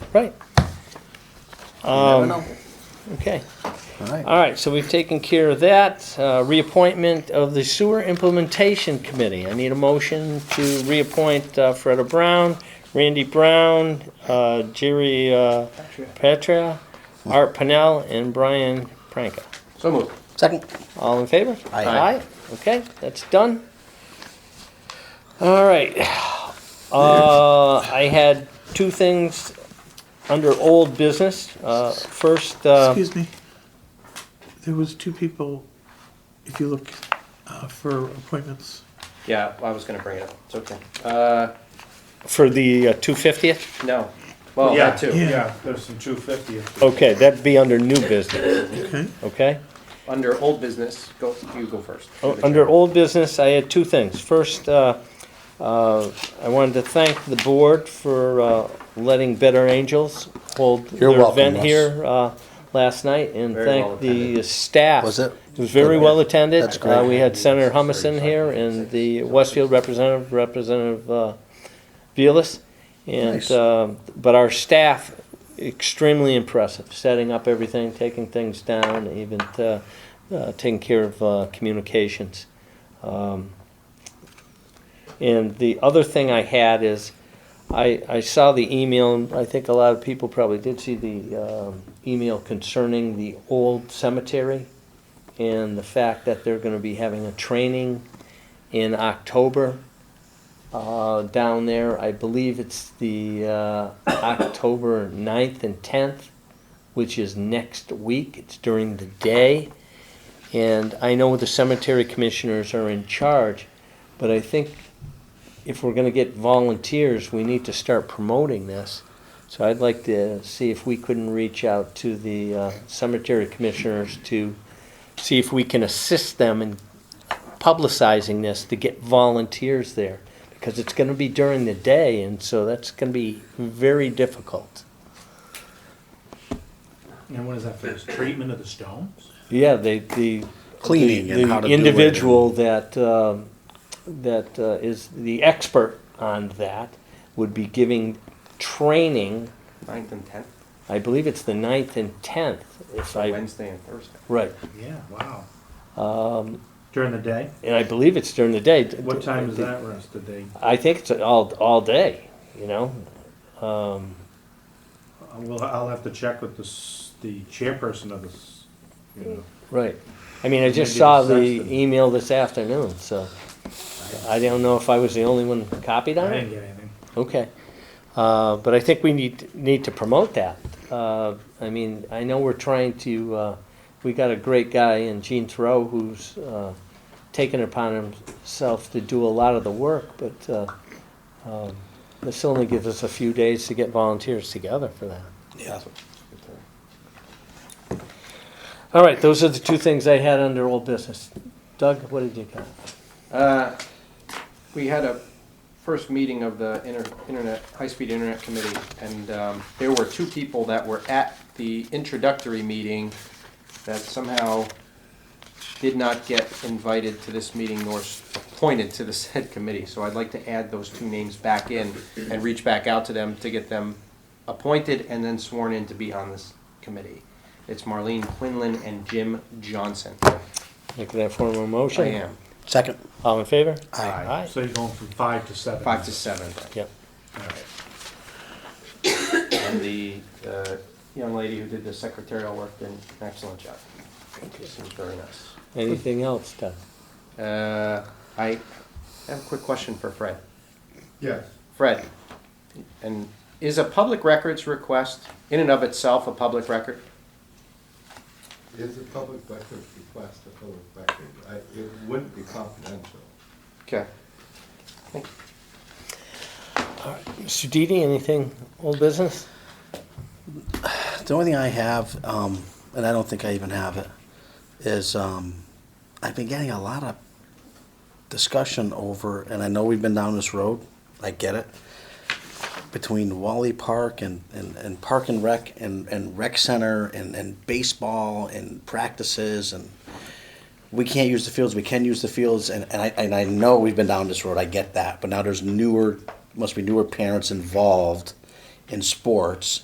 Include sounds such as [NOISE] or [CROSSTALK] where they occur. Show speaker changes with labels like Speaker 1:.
Speaker 1: Right,
Speaker 2: Never know.
Speaker 1: Um, okay.
Speaker 3: All right.
Speaker 1: All right, so we've taken care of that. Uh, Reappointment of the Sewer Implementation Committee. I need a motion to reappoint uh, Freda Brown, Randy Brown, uh, Jerry uh, Petra, Art Pennell, and Brian Pranka.
Speaker 2: So moved.
Speaker 3: Second.
Speaker 1: All in favor?
Speaker 3: Aye.
Speaker 1: Aye, okay, that's done. All right. Uh, I had two things under old business. Uh, First, uh,
Speaker 4: Excuse me. There was two people, if you look, uh, for appointments.
Speaker 2: Yeah, I was gonna bring it up. It's okay. Uh,
Speaker 1: for the uh, 250th?
Speaker 2: no. Well,
Speaker 5: Yeah,
Speaker 2: that too.
Speaker 4: Yeah.
Speaker 5: Yeah, there's some two fiftieth.
Speaker 1: Okay, that'd be under new business,
Speaker 4: Okay.
Speaker 1: okay?
Speaker 2: Under old business, go, you go first.
Speaker 1: O- Oh, Under old business, I had two things. First, uh, uh, I wanted to thank the board for uh, letting Better Angels hold
Speaker 3: You're
Speaker 1: their
Speaker 3: welcome,
Speaker 1: event
Speaker 3: Russ.
Speaker 1: here uh, last night and
Speaker 2: Very well
Speaker 1: thank the uh,
Speaker 2: attended.
Speaker 1: staff.
Speaker 3: Was it?
Speaker 1: It was very
Speaker 3: Good.
Speaker 1: well attended.
Speaker 3: That's great.
Speaker 1: Uh, We had Senator Humison here and the Westfield representative, Representative uh, Vilas. And,
Speaker 3: Nice.
Speaker 1: um, but our staff extremely impressive, setting up everything, taking things down, even uh, uh, taking care of uh, communications. Um, And the other thing I had is, I, I saw the email, and I think a lot of people probably did see the um, email concerning the old cemetery and the fact that they're gonna be having a training in October uh, down there. I believe it's the uh, October 9th and 10th, which is next week. It's during the day. And I know the cemetery commissioners are in charge, but I think if we're going to get volunteers, we need to start promoting this. So I'd like to see if we couldn't reach out to the uh, cemetery commissioners to see if we can assist them in publicizing this to get volunteers there because it's going to be during the day and so that's going to be very difficult.
Speaker 5: And what is that for, Is treatment of the stones?
Speaker 1: Yeah, they, the
Speaker 3: Cleaning
Speaker 1: the,
Speaker 3: and
Speaker 1: the
Speaker 3: how to do it and-
Speaker 1: individual that um, that uh, is the expert on that would be giving training.
Speaker 2: Ninth and tenth,
Speaker 1: I believe it's the 9th and tenth. If I
Speaker 2: Wednesday and Thursday.
Speaker 1: right,
Speaker 5: Yeah, wow. During the day?
Speaker 1: and I believe it's during the day.
Speaker 5: What time is that rest of day?
Speaker 1: I think it's all all day. You know,
Speaker 5: Uh, Well, I'll have to check with the, s- the chairperson of this, you know.
Speaker 1: Right. I mean, I just
Speaker 5: Maybe
Speaker 1: saw
Speaker 5: the
Speaker 1: the
Speaker 5: sexton.
Speaker 1: email this afternoon, so I don't know if I was the only one copied
Speaker 5: I
Speaker 1: on
Speaker 5: didn't
Speaker 1: it.
Speaker 5: get anything.
Speaker 1: Okay. Uh, but I think we need, need to promote that. Uh, I mean, I know we're trying to, uh, we got a great guy in Gene Thoreau who's, uh, taken upon himself to do a lot of the work, but, uh, um, this only gives us a few days to get volunteers together for that.
Speaker 3: Yeah.
Speaker 1: All right, those are the two things I had under old business. Doug, what did you got?
Speaker 2: Uh, we had a first meeting of the inter- internet, high-speed internet committee, and um, there were two people that were at the introductory meeting that somehow did not get invited to this meeting nor s- appointed to the [LAUGHS] said committee. So I'd like to add those two names back in and reach back out to them to get them appointed and then sworn in to be on this committee. It's Marlene Quinlan and Jim Johnson.
Speaker 1: Making that formal
Speaker 2: I
Speaker 1: motion?
Speaker 2: am,
Speaker 3: Second.
Speaker 1: All in favor? Aye.
Speaker 5: Aye. So you're going from five to seven?
Speaker 2: five to seven.
Speaker 1: Yep.
Speaker 2: And the uh, young lady who did the secretarial work did an excellent job. She seems very nice.
Speaker 1: Anything else, Doug?
Speaker 2: Uh, I have a quick question for Fred.
Speaker 5: Yes.
Speaker 2: Fred, and is a public records request in and of itself a public record?
Speaker 6: Is a public record request a public record? I, it wouldn't be confidential.
Speaker 2: Okay.
Speaker 1: Mr. Didi, anything old business?
Speaker 3: The only thing I have, um, and I don't think I even have it, is um, I've been getting a lot of discussion over, and I know we've been down this road, I get it, between Wally Park and, and, and Park and Rec and, and Rec Center and, and baseball and practices and we can't use the fields, we can use the fields, and, and I and I know we've been down this road, I get that, but now there's newer must be newer parents involved in sports